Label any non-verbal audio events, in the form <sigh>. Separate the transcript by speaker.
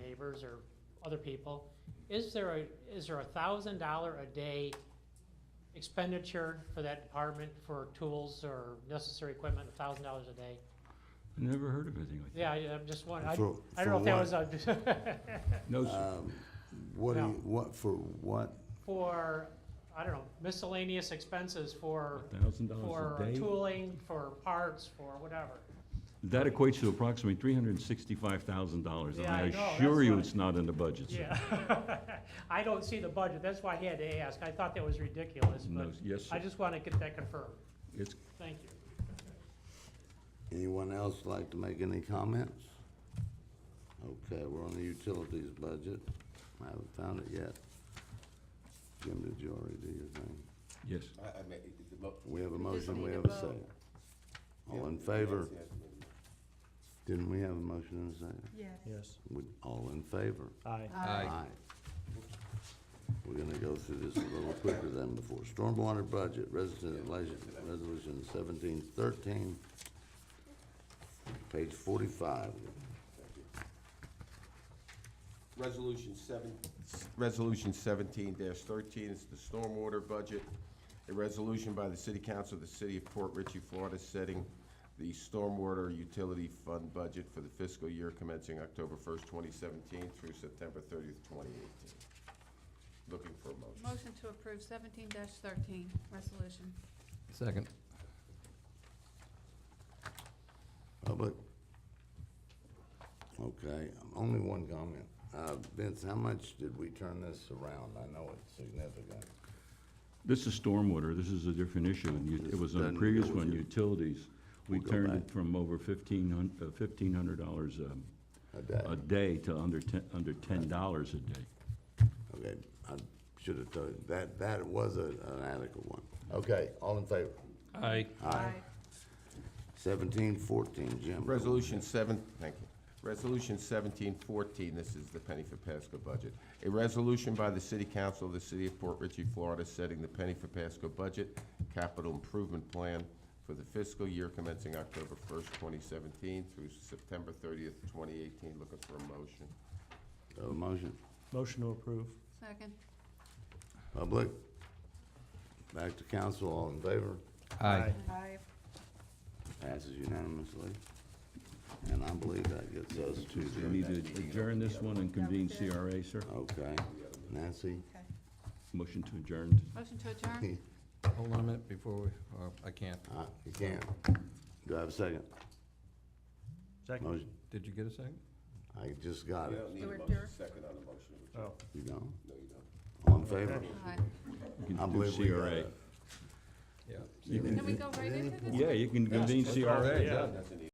Speaker 1: members or other people, is there a, is there a thousand dollar a day expenditure for that department for tools or necessary equipment, a thousand dollars a day?
Speaker 2: I Never heard of anything like that.
Speaker 1: Yeah, I, I'm just wondering,
Speaker 3: For-
Speaker 1: I, I don't know if that
Speaker 3: for
Speaker 1: was a, <laughs>
Speaker 2: No, sir.
Speaker 3: Um, What do
Speaker 1: No.
Speaker 3: you, what, for what?
Speaker 1: for, I don't know, miscellaneous expenses for,
Speaker 2: thousand dollars
Speaker 1: for
Speaker 2: a day?
Speaker 1: tooling, for parts, for whatever.
Speaker 2: That equates to approximately three hundred and sixty-five thousand dollars.
Speaker 1: Yeah, I know,
Speaker 2: I
Speaker 1: that's
Speaker 2: assure you
Speaker 1: why-
Speaker 2: it's not in the budget, sir.
Speaker 1: Yeah, <laughs> I don't see the budget, that's why I had to ask, I thought that was ridiculous,
Speaker 2: No,
Speaker 1: but
Speaker 2: yes, sir.
Speaker 1: I just wanna get that confirmed,
Speaker 2: It's,
Speaker 1: thank you.
Speaker 3: Anyone else like to make any comments? Okay, we're on the utilities budget. I haven't found it yet. Jim, did you already do your thing?
Speaker 2: yes.
Speaker 4: I, I make, it- the vote.
Speaker 3: We have a
Speaker 5: We just
Speaker 3: motion, we
Speaker 5: need a
Speaker 3: have a
Speaker 5: vote.
Speaker 3: second. All in
Speaker 4: Yeah,
Speaker 3: favor?
Speaker 4: yes, yes.
Speaker 3: Didn't we have a motion and a second?
Speaker 5: Yes.
Speaker 6: Yes.
Speaker 3: We- All in favor?
Speaker 6: Aye.
Speaker 3: We're gonna go through this a little quicker than before. Stormwater budget, resident, les- resolution seventeen thirteen, page forty-five.
Speaker 4: Resolution seven, resolution seventeen thirteen is the stormwater budget. A resolution by the City Council of the City of Port Richey, Florida, setting the stormwater utility fund budget for the fiscal year commencing October first, twenty seventeen through September thirtieth, twenty eighteen. Looking for a motion.
Speaker 5: Motion to approve seventeen thirteen, resolution.
Speaker 7: Second.
Speaker 3: Public? Okay, only one comment. Uh, Vince, how much did we turn this around? I know it's significant.
Speaker 2: This is stormwater, this is a different issue, and you- it
Speaker 3: This
Speaker 2: was on
Speaker 3: doesn't
Speaker 2: the previous
Speaker 3: go with
Speaker 2: one,
Speaker 3: you.
Speaker 2: utilities. We
Speaker 3: We'll go
Speaker 2: turned
Speaker 3: back.
Speaker 2: it from over fifteen hun, uh, fifteen hundred dollars a,
Speaker 3: A day.
Speaker 2: a day to under ten, under ten dollars a day.
Speaker 3: Okay, I should have told, you. that, that was a- an adequate one. Okay, all in favor?
Speaker 7: Aye.
Speaker 5: Aye.
Speaker 3: Seventeen fourteen, Jim. go ahead.
Speaker 4: Resolution seven, thank you. Resolution seventeen fourteen, this is the Penny for Pasco budget. A resolution by the City Council of the City of Port Richey, Florida, setting the Penny for Pasco budget capital improvement plan for the fiscal year commencing October first, twenty seventeen through September thirtieth, twenty eighteen. Looking for a motion.
Speaker 3: Do I have a motion.
Speaker 6: Motion to approve.
Speaker 5: Second.
Speaker 3: Public? Back to council, all in favor?
Speaker 7: Aye.
Speaker 5: Aye.
Speaker 3: Passes unanimously. And I believe that gets us to
Speaker 2: We
Speaker 3: the,
Speaker 2: need to adjourn this one and convene
Speaker 5: Yeah, we
Speaker 2: CRA,
Speaker 5: did.
Speaker 2: sir.
Speaker 3: okay, Nancy?
Speaker 5: Okay.
Speaker 2: Motion to adjourn.
Speaker 5: Motion to adjourn?
Speaker 7: Hold on a minute before we, uh, I can't.
Speaker 3: Uh, You can't. Do I have a second?
Speaker 6: Second.
Speaker 3: Motion?
Speaker 7: Did you get a second?
Speaker 3: I just got it.
Speaker 5: need a motion.
Speaker 4: second on the motion.
Speaker 6: Oh.
Speaker 3: You don't? All in favor?
Speaker 5: Aye.
Speaker 2: You can
Speaker 3: I
Speaker 2: do
Speaker 3: believe we got
Speaker 2: CRA.
Speaker 3: it.
Speaker 7: Yeah.
Speaker 2: You
Speaker 5: Can we
Speaker 2: can,
Speaker 5: go right into this?
Speaker 2: yeah, you can convene CRA.
Speaker 6: Yeah.
Speaker 4: That's an easy